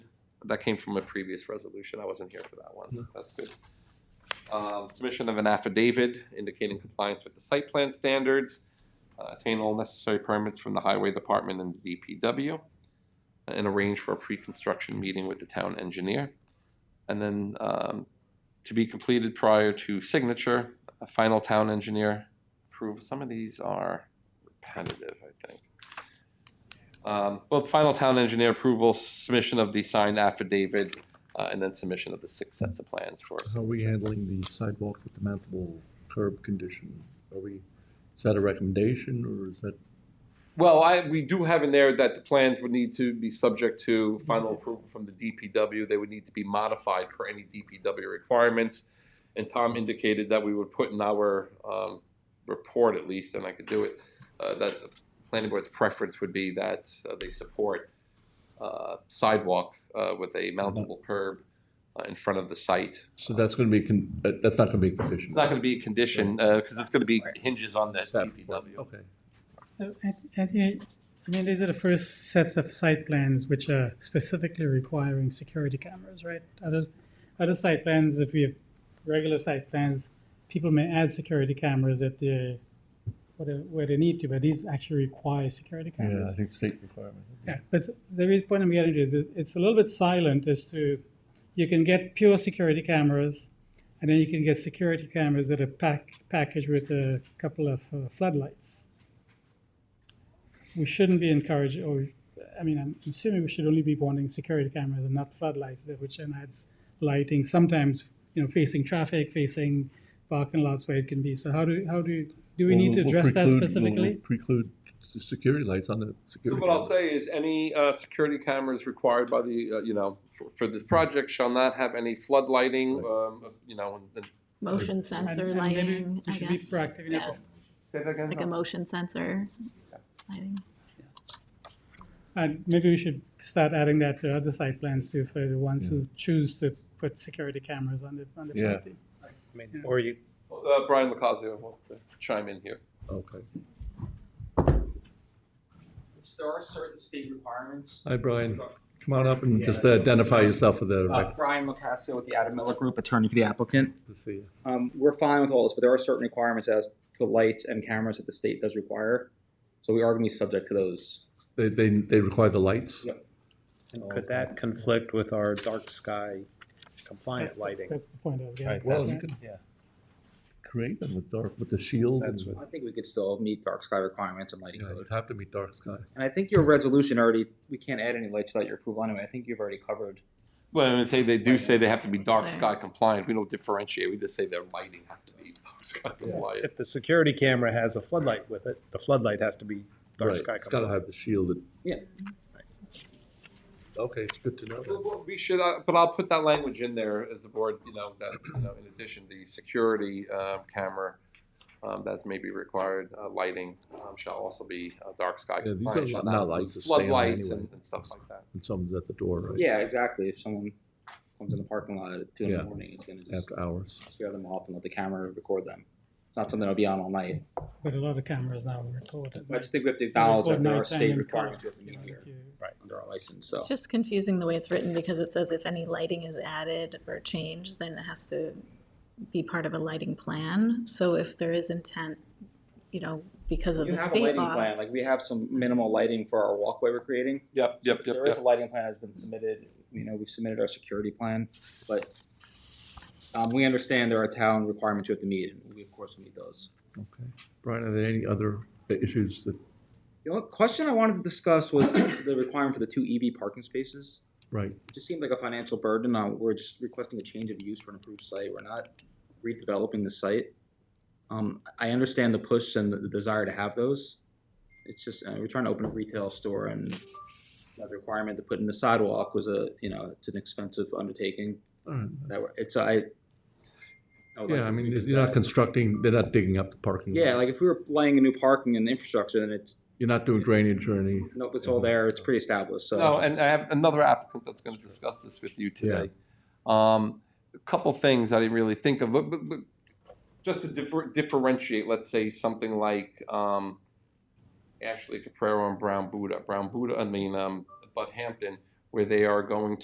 that came from a previous resolution. I wasn't here for that one. That's good. Um, submission of an affidavit indicating compliance with the site plan standards, uh, obtain all necessary permits from the highway department and the DPW, uh, and arrange for a pre-construction meeting with the town engineer. And then, um, to be completed prior to signature, a final town engineer approval. Some of these are repetitive, I think. Um, well, final town engineer approval, submission of the signed affidavit, uh, and then submission of the six sets of plans for How are we handling the sidewalk with the mountable curb condition? Are we, is that a recommendation or is that, Well, I, we do have in there that the plans would need to be subject to final approval from the DPW. They would need to be modified for any DPW requirements. And Tom indicated that we would put in our, um, report at least, and I could do it, uh, that the planning board's preference would be that uh, they support, uh, sidewalk, uh, with a mountable curb uh, in front of the site. so that's going to be, con- uh, that's not going to be a condition? It's not gonna be a condition, uh, cause it's gonna be hinges on the Staff DPW. Okay. So I, th- I think, I mean, these are the first sets of site plans which are specifically requiring security cameras, right? Other, other site plans that we have, regular site plans, people may add security cameras at the, where they, where they need to, but these actually require security Yeah, cameras. I think state requirement. Yeah, but the real point I'm getting to is, is it's a little bit silent as to, you can get pure security cameras, and then you can get security cameras that are pack, packaged with a couple of uh, floodlights. We shouldn't be encouraging, or, I mean, I'm assuming we should only be wanting security cameras and not floodlights, that which then adds lighting, sometimes, you know, facing traffic, facing parking lots where it can be. So how do, how do, do we need to We'll- we'll address that preclude- we'll specifically? Preclude s- security lights on the So security. what I'll cameras. say is, any uh, security cameras required by the, uh, you know, for- for this project shall not have any floodlighting, um, you know, and- and. Motion And- sensor and maybe lighting, We I should be guess, proactive enough to Yeah. Say that again? like a motion sensor lighting. And maybe we should start adding that to other site plans too, for the ones who choose to put security cameras on the, on the Yeah. property. I mean, or you, Uh, Brian Lucasio wants to chime in here. Okay. There are certain state requirements. Hi, Brian. Come on up and just identify yourself for the, Uh, Ah. rec- Brian Locascio with the Adam Miller Group, attorney for the applicant. to see. you. Um, we're fine with all this, but there are certain requirements as to lights and cameras that the state does require. So we are gonna be subject to those. They, they, they require the lights? Yep. could that conflict with our dark sky compliant That's- lighting? That's the point I was getting. Right, at. Well, that's- you could create them with dark, with the shield. That's and- I think we could still meet dark sky requirements and lighting Yeah, code. it'd have to be dark sky. And I think your resolution already, we can't add any lights without your approval anyway. I think you've already covered. Well, I say they do say they have to be dark Sorry. sky compliant. We don't differentiate. We just say their lighting has to be dark sky compliant. If the security camera has a floodlight with it, the floodlight has to be dark Right, sky It's gotta compliant. have the shielded. Yeah. Okay, it's good to know. Well, that. well, We should, uh, but I'll put that language in there as the board, you know, that, you know, in addition, the security um, camera um, that's maybe required, uh, lighting um, shall also be uh, dark sky Yeah, these compliant. are shall not not include lights, they stay on Floodlights anyway. and and stuff like that. And someone's at the door, right? Yeah, exactly. If someone comes in the parking lot at two in Yeah. the morning, it's gonna just After hours. scare them off and let the camera record them. It's not something that'll be on all night. But a lot of cameras now are recorded. I right? just think we have to acknowledge that there are Record nighttime state and requirements we color, have to meet you know, here that you- under our license, so. It's just confusing the way it's written because it says if any lighting is added or changed, then it has to be part of a lighting plan. So if there is intent, you know, because of You the have a state lighting law. plan, like we have some minimal lighting for our walkway we're creating. Yep, yep, yep, There is yep. a lighting plan that's been submitted, you know, we've submitted our security plan, but um, we understand there are town requirements we have to meet, and we of course will meet those. Okay. Brian, are there any other issues that, The only question I wanted to discuss was the requirement for the two EV parking spaces. right, It just seemed like a financial burden, uh, we're just requesting a change of use for an approved site, we're not redeveloping the site. Um, I understand the push and the desire to have those, it's just, uh, we're trying to open a retail store and the requirement to put in the sidewalk was a, you know, it's an expensive undertaking, all right. that, were- it's, I. I would like Yeah, I to mean, see you're not that. constructing, they're not digging up the parking. lot. Yeah, like if we were laying a new parking and infrastructure, then it's, You're not doing drainage or any, nope, it's all there, it's pretty established, so. No, and I have another applicant that's gonna discuss this with you today. Um, a couple things I didn't really think of, but, but, but just to differ, differentiate, let's say something like, um, Ashley Caprero and Brown Buddha, Brown Buddha, I mean, um, Bud Hampton, where they are going